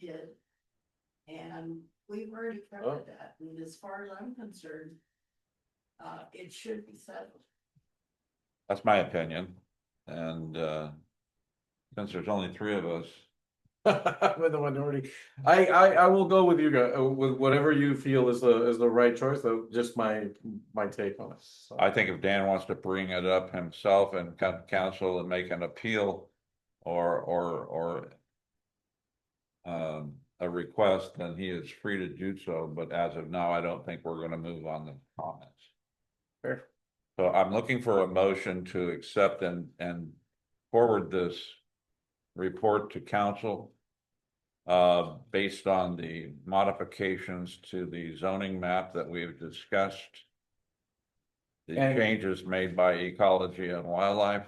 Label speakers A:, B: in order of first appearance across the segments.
A: kid. And we've already
B: Oh.
A: covered that, and as far as I'm concerned, uh, it should be settled.
B: That's my opinion, and, uh, since there's only three of us. With the minority, I, I, I will go with you guys,
C: uh,
B: with whatever you feel is the, is the right choice, though, just my, my take on it. I think if Dan wants to bring it up himself and co- counsel and make an appeal or, or, or um, a request, then he is free to do so, but as of now, I don't think we're gonna move on the comments. So I'm looking for a motion to accept and, and forward this report to council. Uh, based on the modifications to the zoning map that we've discussed. The
C: And-
B: changes made by ecology and wildlife.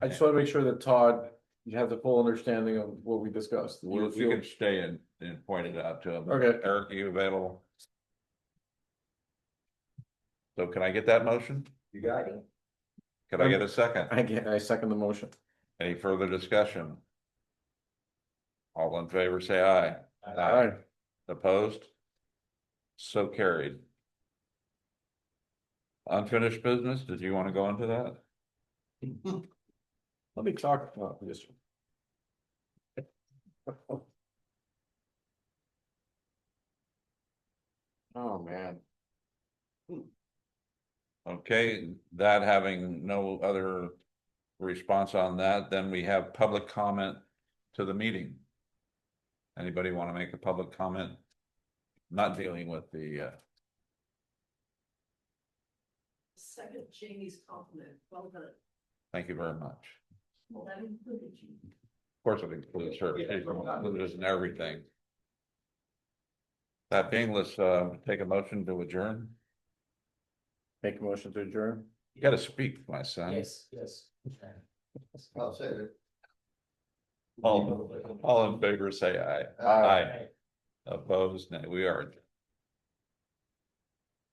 C: I just want to make sure that Todd, you have the full understanding of what we discussed.
B: We
C: You
B: we
C: feel-
B: can stay and, and point it out to them.
C: Okay.
B: Eric, are you available? So can I get that motion?
D: You got it.
B: Could I get a second?
C: Um, I get, I second the motion.
B: Any further discussion? All in favor, say aye.
C: Aye.
B: Opposed? So carried. Unfinished business, did you want to go into that?
C: Let me talk about this. Oh, man.
B: Okay, that having no other response on that, then we have public comment to the meeting. Anybody want to make a public comment? Not dealing with the, uh,
A: Second Jamie's compliment, well done,
B: thank you very much.
A: well, that included you.
B: Of course, it includes her,
D: Yeah,
B: it
D: it's not-
B: includes in everything. That being, let's uh take a motion to adjourn.
C: Make a motion to adjourn.
B: You gotta speak, my son.
D: yes. I'll say it.
B: All, all in favor, say aye. Aye. Opposed, nay, we are. adjourned.